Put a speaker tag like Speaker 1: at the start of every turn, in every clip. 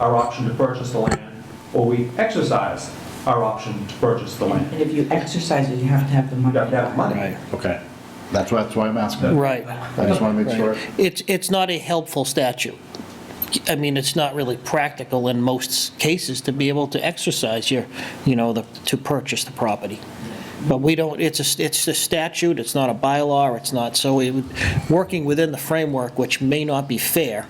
Speaker 1: our option to purchase the land, or we exercise our option to purchase the land.
Speaker 2: And if you exercise it, you have to have the
Speaker 1: You
Speaker 2: money.
Speaker 1: got to have money.
Speaker 3: Right, okay.
Speaker 4: That's why, that's why I'm asking.
Speaker 5: Right.
Speaker 4: I just want to make sure.
Speaker 5: It's, it's not a helpful statute. I mean, it's not really practical in most cases to be able to exercise your, you know, the, to purchase the property. But we don't, it's a, it's a statute, it's not a bylaw, it's not, so it, would- working within the framework, which may not be fair,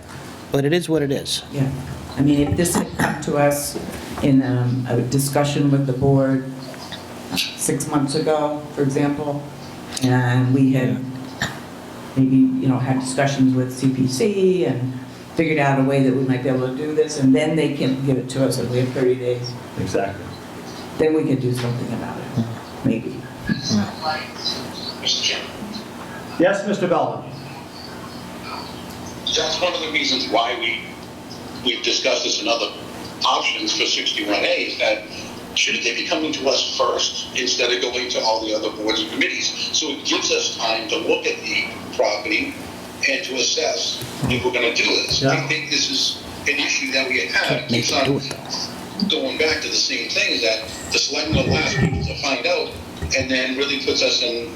Speaker 5: but it is what it is.
Speaker 2: Yeah, I mean, if this had come to us in um, a discussion with the board six months ago, for example, and we had maybe, you know, had discussions with CPC and figured out a way that we might be able to do this, and then they can give it to us, and we have 30 days,
Speaker 1: Exactly.
Speaker 2: then we could do something about it,
Speaker 4: Mm-hmm.
Speaker 2: maybe.
Speaker 6: Mr. Chairman,
Speaker 1: Yes, Mr. Belvin?
Speaker 6: that's one of the reasons why we, we've discussed this and other options for 61A is that shouldn't they be coming to us first instead of going to all the other boards and committees? So it gives us time to look at the property and to assess if we're going to do this. I
Speaker 1: Yeah.
Speaker 6: think this is an issue that we have.
Speaker 5: Can't make
Speaker 6: It's
Speaker 5: it
Speaker 6: not
Speaker 5: do it, though.
Speaker 6: going back to the same thing is that the selectmen will ask people to find out and then really puts us in. an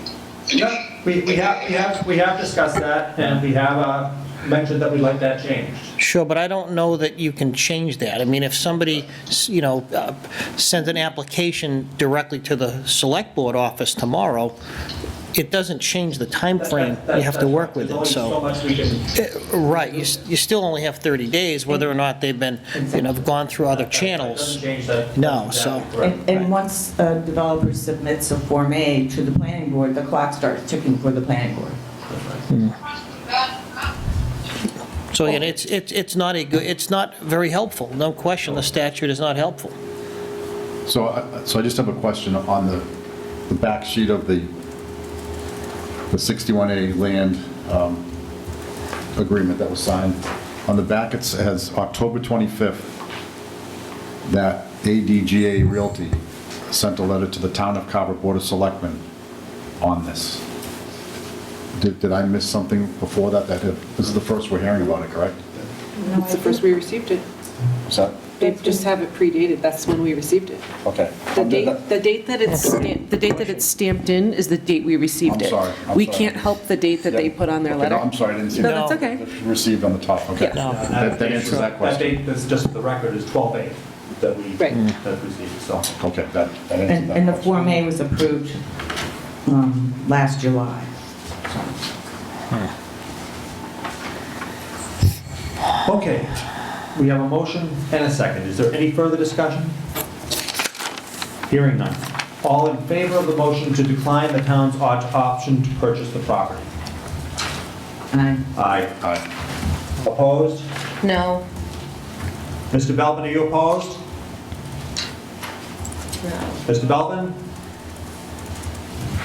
Speaker 6: issue.
Speaker 1: Yeah, we, we have, we have, we have discussed that, and we have, uh, mentioned that we'd like that changed.
Speaker 5: Sure, but I don't know that you can change that. I mean, if somebody, s- you know, uh, sent an application directly to the Select Board office tomorrow, it doesn't change the timeframe you have to work with it,
Speaker 1: There's only
Speaker 5: so.
Speaker 1: much we can-
Speaker 5: Eh, Right, you s- you still only have 30 days, whether or not they've been, you know, have gone through other
Speaker 1: Doesn't
Speaker 5: channels.
Speaker 1: change that.
Speaker 5: No, so-
Speaker 1: Correct.
Speaker 2: And, and once a developer submits a Form A to the planning board, the clock starts ticking for the planning board.
Speaker 5: So, again, it's, it's it's not a good, it's not very helpful, no question, the statute is not helpful.
Speaker 4: So, I- so I just have a question on the, the back sheet of the, the 61A land um, agreement that was signed. On the back, it says October 25th, that ADGA Realty sent a letter to the Town of Carver Board of Selectmen on this. Did, did I miss something before that? That, this is the first we're hearing about it, correct?
Speaker 7: It's the first we received it.
Speaker 4: Is that,
Speaker 7: They just have it predated, that's when we received it.
Speaker 4: okay.
Speaker 7: The date, the date that it's, stamp- the date that it's stamped in is the date we received
Speaker 4: I'm
Speaker 7: it.
Speaker 4: sorry, I'm
Speaker 7: We
Speaker 4: sorry.
Speaker 7: can't help the date that they
Speaker 4: Yep.
Speaker 7: put on their
Speaker 4: Okay, no,
Speaker 7: letter.
Speaker 4: I'm sorry, I didn't see
Speaker 7: No,
Speaker 4: that.
Speaker 7: that's okay.
Speaker 4: Received on the top, okay.
Speaker 7: Yeah.
Speaker 5: No.
Speaker 4: That that answers that question.
Speaker 1: date, that's just the record, is 12/8 that we,
Speaker 7: Right. Mm.
Speaker 1: that we received, so.
Speaker 4: Okay, that, that answers
Speaker 2: And,
Speaker 4: that
Speaker 2: and the
Speaker 4: question.
Speaker 2: Form A was approved um, last July.
Speaker 1: Okay, we have a motion and a second. Is there any further discussion? Hearing none. All in favor of the motion to decline the town's op- option to purchase the property?
Speaker 2: And I,
Speaker 1: Aye.
Speaker 4: Aye.
Speaker 1: Opposed?
Speaker 8: No,
Speaker 1: Mr. Belvin, are you opposed?
Speaker 8: no.
Speaker 1: Mr. Belvin?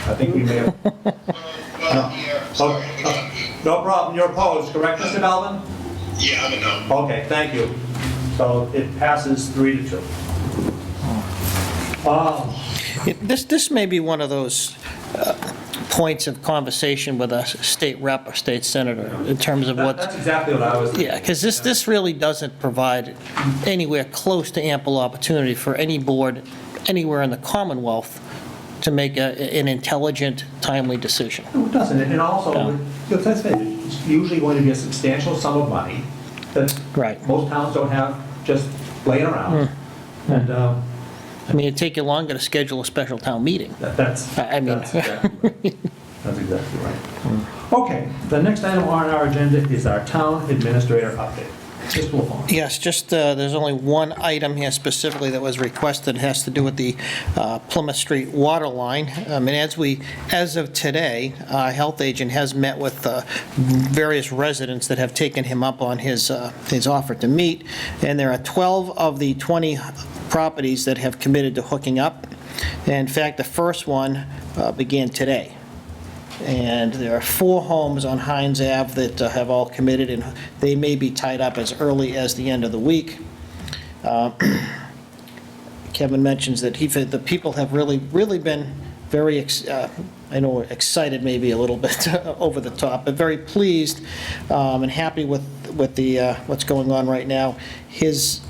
Speaker 1: I think we may have...
Speaker 6: Well, yeah, Uh,
Speaker 1: Oh,
Speaker 6: sorry, uh, we got-
Speaker 1: No problem, you're opposed, correct, Mr. Belvin?
Speaker 6: Yeah, I'm a no.
Speaker 1: Okay, thank you. So it passes three to two. Oh,
Speaker 5: It- This, this may be one of those uh, points of conversation with a state rep or state senator in terms of
Speaker 1: that-
Speaker 5: what,
Speaker 1: that's exactly what I was...
Speaker 5: yeah, because this, this really doesn't provide anywhere close to ample opportunity for any board anywhere in the Commonwealth to make a- an intelligent, timely decision.
Speaker 1: No, it doesn't, and also,
Speaker 5: No.
Speaker 1: you know, that's it. it's usually going to be a substantial sum of money that
Speaker 5: Right.
Speaker 1: most towns don't have just laying around.
Speaker 5: Hmm.
Speaker 1: And um,
Speaker 5: I mean, it'd take you longer to schedule a special town meeting.
Speaker 1: that- that's,
Speaker 5: I- I mean-
Speaker 1: that's exactly right. That's exactly right. Okay, the next item on our agenda is our town administrator update. Mr. LaFawn.
Speaker 5: Yes, just, uh, there's only one item here specifically that was requested, It has to do with the uh, Plymouth Street water line. Um, And as we, as of today, our health agent has met with uh, various residents that have taken him up on his, uh, his offer to meet, and there are 12 of the 20 properties that have committed to hooking up. In fact, the first one uh, began today. And there are four homes on Hines Ave that uh, have all committed, and they may be tied up as early as the end of the week. Uh, Kevin mentions that he, the people have really, really been very, ex- uh, I know, excited maybe a little bit over the top, but very pleased um, and happy with, with the, uh, what's going on right now. His